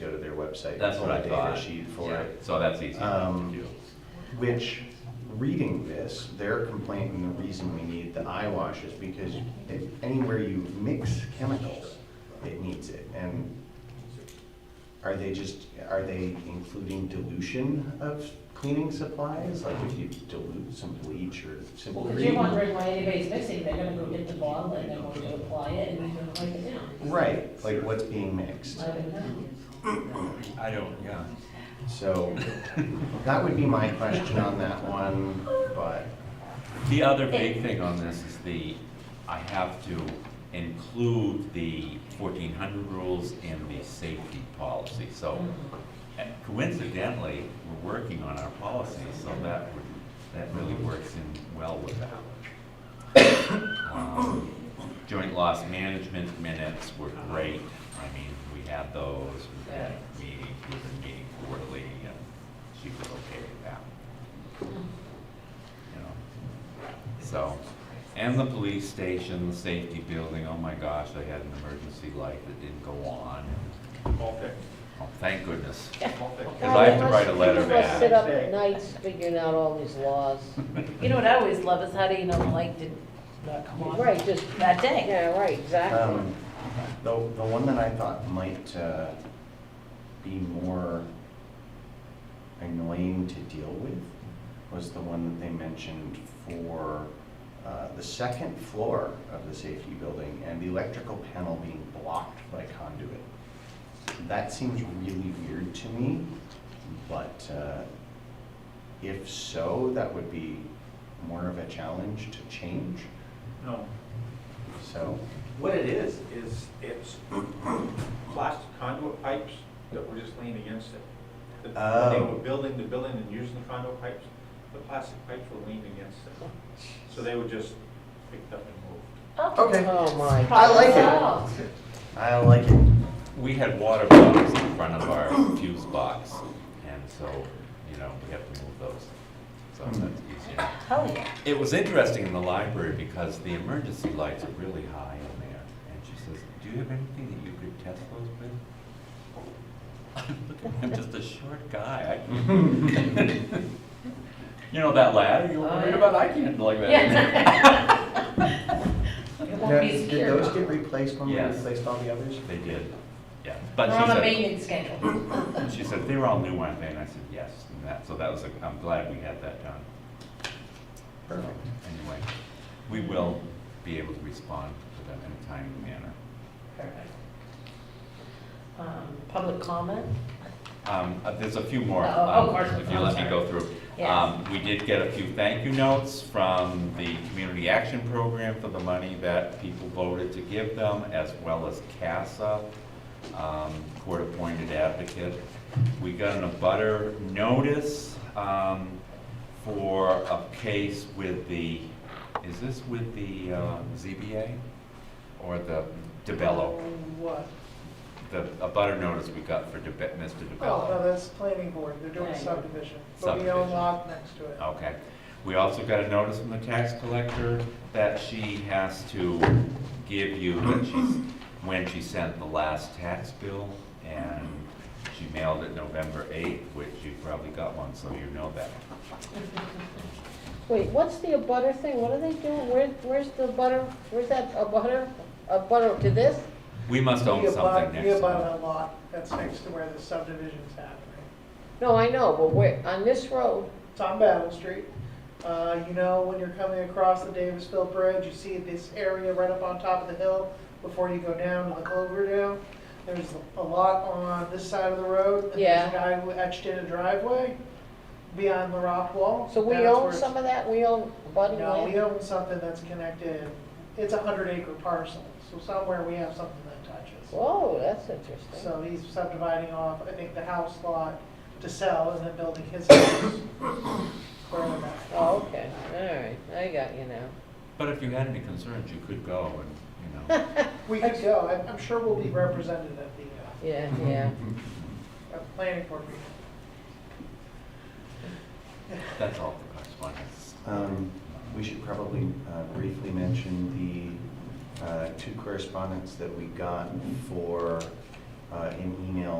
website. That's what I put a data thought. sheet for Yeah, it. So that's easy to Um, do. Which, reading this, their complaint and the reason we need the eye wash is because if anywhere you mix chemicals, it needs it. And are they just, are they including dilution of cleaning supplies? Like if you dilute some bleach or simple Because cream? you're wondering why anybody's mixing, they're gonna go get the bottle and they're going to apply it and they're gonna wipe it down. Right, like what's being mixed. I don't know. I don't, yeah. So that would be my question on that one, but The other big thing on this is the, I have to include the fourteen hundred rules in the safety policy. So uh, coincidentally, we're working on our policy, so that would, that really works in well with that. Um, Joint loss management minutes were great. I mean, we had those, we had meetings, we've been meeting quarterly, and she was okay with that. You know, so, and the police station, the safety building, oh my gosh, they had an emergency light that didn't go on. All Oh, thank goodness. picked, all picked. Because I have to write a letter People must sit back. up at nights figuring out all these laws. You know what I always love is how do you know the light did not come on? Right, just, That day. yeah, right, exactly. um, the, the one that I thought might uh, be more annoying to deal with was the one that they mentioned for uh, the second floor of the safety building and the electrical panel being blocked by conduit. That seems really weird to me, but uh, if so, that would be more of a challenge to change, No, so. what it is, is it's plastic conduit pipes that were just leaning against it. The- When they Oh. were building the building and using the conduit pipes, the plastic pipes were leaning against it. So they were just picked up and moved. Okay. Oh, my. I like it. Oh, I like it. We had water bottles in front of our fuse box, and so, you know, we have to move those. So that's easier. Hell yeah. It was interesting in the library because the emergency lights are really high in there. And she says, do you have anything that you could test those with? Look at me, I'm just a short guy. I can't- You know that ladder you were Oh, worried about? I can't like that. It Now, won't be did secure. those get replaced when we Yes. replaced all the others? They did, yeah. We're But she on a said- maintenance schedule. She said, they were all new, weren't they? And I said, yes. And that, so that was, a- I'm glad we had that done. Perfect. Anyway, we will be able to respond to them in a timely manner. Perfect. Um, Public comment? Um, uh, There's a few more. Oh, oh, um, of course. If you I'm let me sorry. go through. Yes. Um, We did get a few thank you notes from the Community Action Program for the money that people voted to give them, as well as CASA, um, court-appointed advocate. We got an abutter notice um, for a case with the, is this with the um, ZBA? Or the DeBello? What? The abutter notice we got for DeBe- Mr. DeBello. Oh, no, that's planning board, they're doing Right. subdivision, but we Subdivision. own lot next to it. Okay. We also got a notice from the tax collector that she has to give you when she's, when she sent the last tax bill, and she mailed it November eighth, which you probably got one, so you know that. Wait, what's the abutter thing? What are they doing? Where, where's the butter? Where's that abutter? Abutter to this? We must own We abut- something We next abut month. a lot that's next to where the subdivision's happening. No, I know, but where, on this road? It's on Battle Street, uh, you know, when you're coming across the Davisville Bridge, you see this area right up on top of the hill before you go down to the Cloverdale. There's a lot on this side of the road, and there's Yeah. a guy who etched in a driveway beyond the rock wall. So we That's where own it's- some of that? We own abutting No, we land? own something that's connected, it's a hundred acre parcel, so somewhere we have something that touches. Whoa, that's interesting. So he's subdividing off, I think, the house lot to sell and then building his house. Growing that. Oh, okay, all right, I got you now. But if you had any concerns, you could go and, you know, We could go, I'm, I'm sure we'll be represented at the, Yeah, yeah. uh, at the planning board meeting. that's all the correspondence. Um, We should probably uh, briefly mention the uh, two correspondents that we got for uh, an email